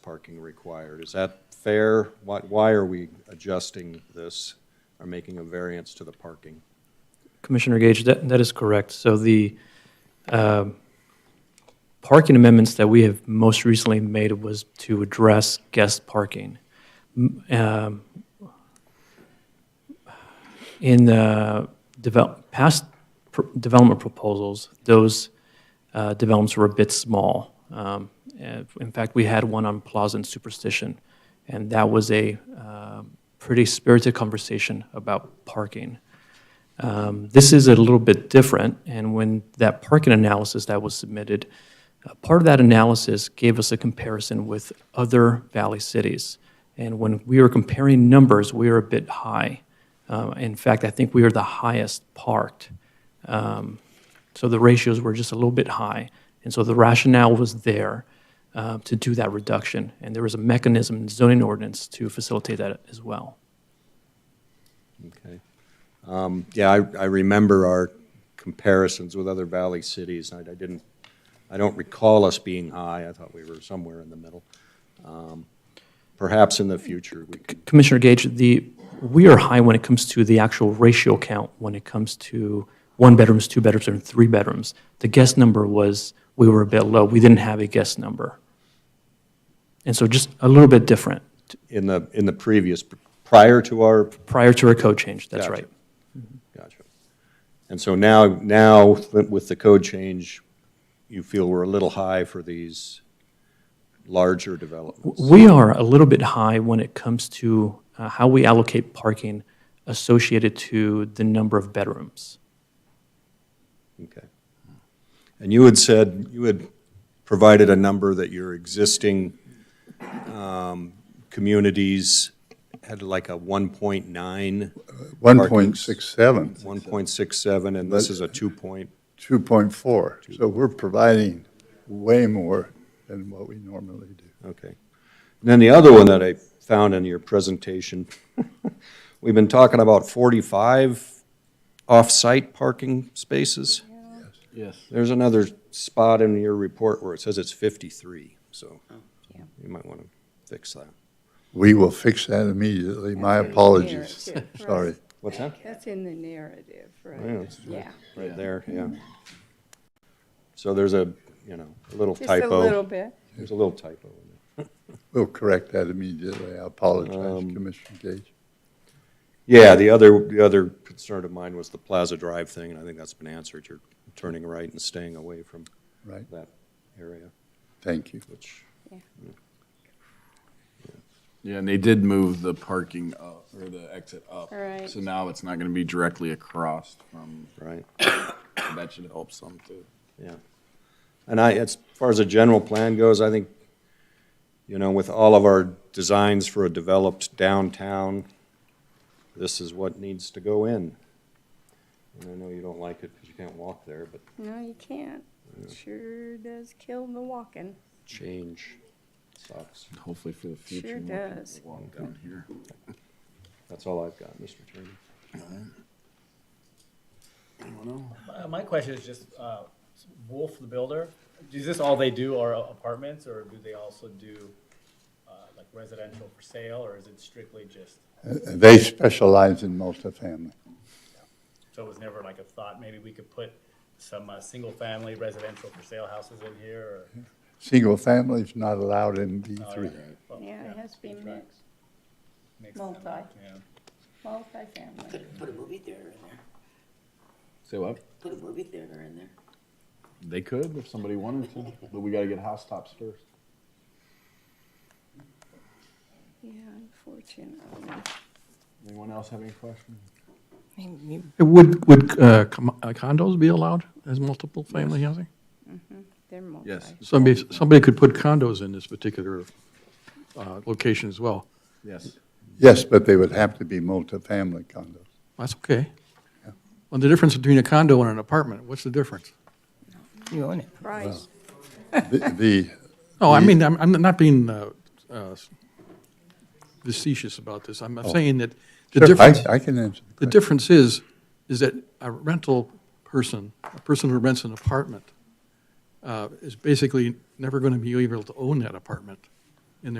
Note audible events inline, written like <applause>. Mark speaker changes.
Speaker 1: parking required. Is that fair? Why, why are we adjusting this or making a variance to the parking?
Speaker 2: Commissioner Gage, that, that is correct. So the um, parking amendments that we have most recently made was to address guest parking. M- um, In the develop, past pr- development proposals, those uh, developments were a bit small. Um, and In fact, we had one on Plaza and Superstition, and that was a um, pretty spirited conversation about parking. Um, This is a little bit different, and when that parking analysis that was submitted, uh, part of that analysis gave us a comparison with other valley cities. And when we were comparing numbers, we are a bit high. Uh, In fact, I think we are the highest parked. Um, So the ratios were just a little bit high. And so the rationale was there uh, to do that reduction. And there was a mechanism in zoning ordinance to facilitate that as well.
Speaker 1: Okay. Um, Yeah, I, I remember our comparisons with other valley cities. I I didn't, I don't recall us being high. I thought we were somewhere in the middle. Um, Perhaps in the future, we could,
Speaker 2: Commissioner Gage, the, we are high when it comes to the actual ratio count, when it comes to one-bedrooms, two-bedrooms, and three-bedrooms. The guest number was, we were a bit low, we didn't have a guest number. And so just a little bit different
Speaker 1: in the, in the previous, prior to our
Speaker 2: prior to our code change, that's
Speaker 1: Gotcha.
Speaker 2: right.
Speaker 1: Gotcha. And so now, now with the code change, you feel we're a little high for these larger developments?
Speaker 2: We are a little bit high when it comes to uh, how we allocate parking associated to the number of bedrooms.
Speaker 1: Okay. And you had said, you had provided a number that your existing um, communities had like a 1.9,
Speaker 3: One point six seven,
Speaker 1: 1.67, and this is a 2 point,
Speaker 3: two point four. So we're providing way more than what we normally do.
Speaker 1: okay. And then the other one that I found in your presentation, <laughs> we've been talking about 45 off-site parking spaces.
Speaker 4: Yes.
Speaker 1: There's another spot in your report where it says it's 53, so
Speaker 5: Oh. yeah.
Speaker 1: you might want to fix that.
Speaker 3: We will fix that immediately. My
Speaker 5: That's
Speaker 3: apologies.
Speaker 5: very clear.
Speaker 3: <laughs> Sorry.
Speaker 1: What's that?
Speaker 5: That's in the narrative,
Speaker 1: Yeah,
Speaker 5: right?
Speaker 1: it's
Speaker 5: Yeah.
Speaker 1: Right there, yeah. So there's a, you know, a little
Speaker 5: Just a little
Speaker 1: typo.
Speaker 5: bit.
Speaker 1: There's a little typo in there.
Speaker 3: We'll correct that immediately. I apologize, Commissioner Gage.
Speaker 1: Yeah, the other, the other concern of mine was the Plaza Drive thing, and I think that's been answered. You're turning right and staying away from
Speaker 3: Right,
Speaker 1: that area,
Speaker 3: thank you.
Speaker 1: which,
Speaker 4: Yeah, and they did move the parking up, or the exit up.
Speaker 5: Right.
Speaker 4: So now it's not gonna be directly across from,
Speaker 1: right?
Speaker 4: that should help some too.
Speaker 1: Yeah. And I, as far as the general plan goes, I think, you know, with all of our designs for a developed downtown, this is what needs to go in. And I know you don't like it because you can't walk there, but
Speaker 5: No, you can't. Sure does kill the walking.
Speaker 1: change sucks.
Speaker 4: Hopefully for the future.
Speaker 5: Sure
Speaker 4: more people
Speaker 5: does.
Speaker 4: Walk down here.
Speaker 1: That's all I've got, Mr. Attorney.
Speaker 6: Uh, My question is just, uh, Wolf, the builder, is this all they do are apartments, or do they also do, uh, like residential for sale, or is it strictly just,
Speaker 3: Uh, They specialize in multifamily.
Speaker 6: so it was never like a thought, maybe we could put some, uh, single-family residential for sale houses in here, or?
Speaker 3: Single family is not allowed in B three.
Speaker 6: well,
Speaker 5: Yeah, it has to be
Speaker 6: right.
Speaker 5: mixed,
Speaker 6: Makes sense,
Speaker 5: multi,
Speaker 6: yeah.
Speaker 5: multifamily.
Speaker 7: Put a movie theater in there.
Speaker 4: Say what?
Speaker 7: Put a movie theater in there.
Speaker 4: uh, They could if somebody wanted to, but we gotta get housetops first.
Speaker 5: Yeah, unfortunately.
Speaker 4: Anyone else have any questions?
Speaker 8: Would, would uh, com- uh, condos be allowed as multiple family housing?
Speaker 5: They're multi.
Speaker 4: Yes.
Speaker 8: Somebody, somebody could put condos in this particular uh, location as well.
Speaker 4: Yes.
Speaker 3: Yes, but they would have to be multifamily condos.
Speaker 8: That's okay. Well, the difference between a condo and an apartment, what's the difference?
Speaker 7: You own it.
Speaker 5: Price,
Speaker 3: The- The,
Speaker 8: No, I mean, I'm, I'm not being uh, uh, facetious about this. I'm saying that the
Speaker 3: Oh. Sure,
Speaker 8: difference.
Speaker 3: I, I can answer. the
Speaker 8: The
Speaker 3: question.
Speaker 8: difference is, is that a rental person, a person who rents an apartment, uh, is basically never going to be able to own that apartment.